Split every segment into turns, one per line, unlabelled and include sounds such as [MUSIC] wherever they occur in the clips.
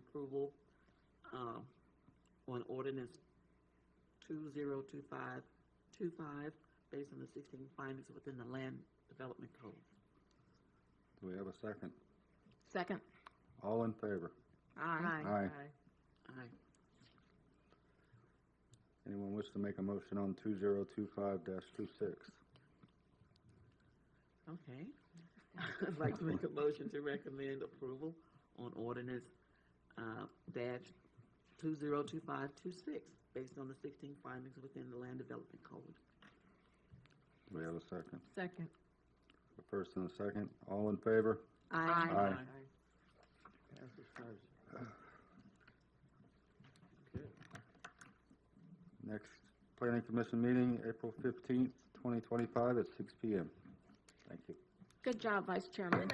approval, um, on ordinance two zero two five, two five, based on the sixteen findings within the land development code.
Do we have a second?
Second.
All in favor?
Aye.
Aye.
Aye.
Anyone wish to make a motion on two zero two five dash two six?
Okay. [LAUGHS] I'd like to make a motion to recommend approval on ordinance, uh, dash two zero two five two six, based on the sixteen findings within the land development code.
Do we have a second?
Second.
A first and a second, all in favor?
Aye.
Aye. Next planning commission meeting, April fifteenth, twenty twenty-five at six P M. Thank you.
Good job, Vice Chairman.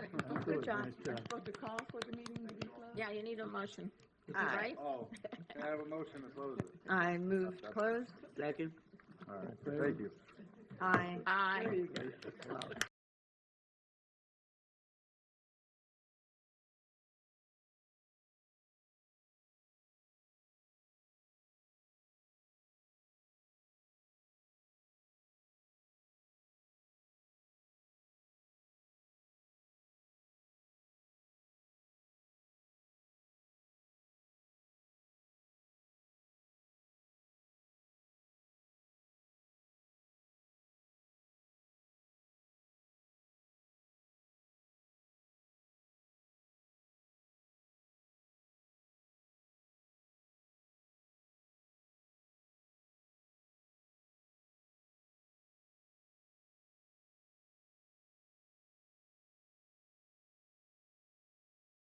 Good job.
Supposed to call for the meeting to be closed?
Yeah, you need a motion,
Aye.
right?
Oh, can I have a motion to close it?
I move to close.
Second?
All right, thank you.
Aye.
Aye.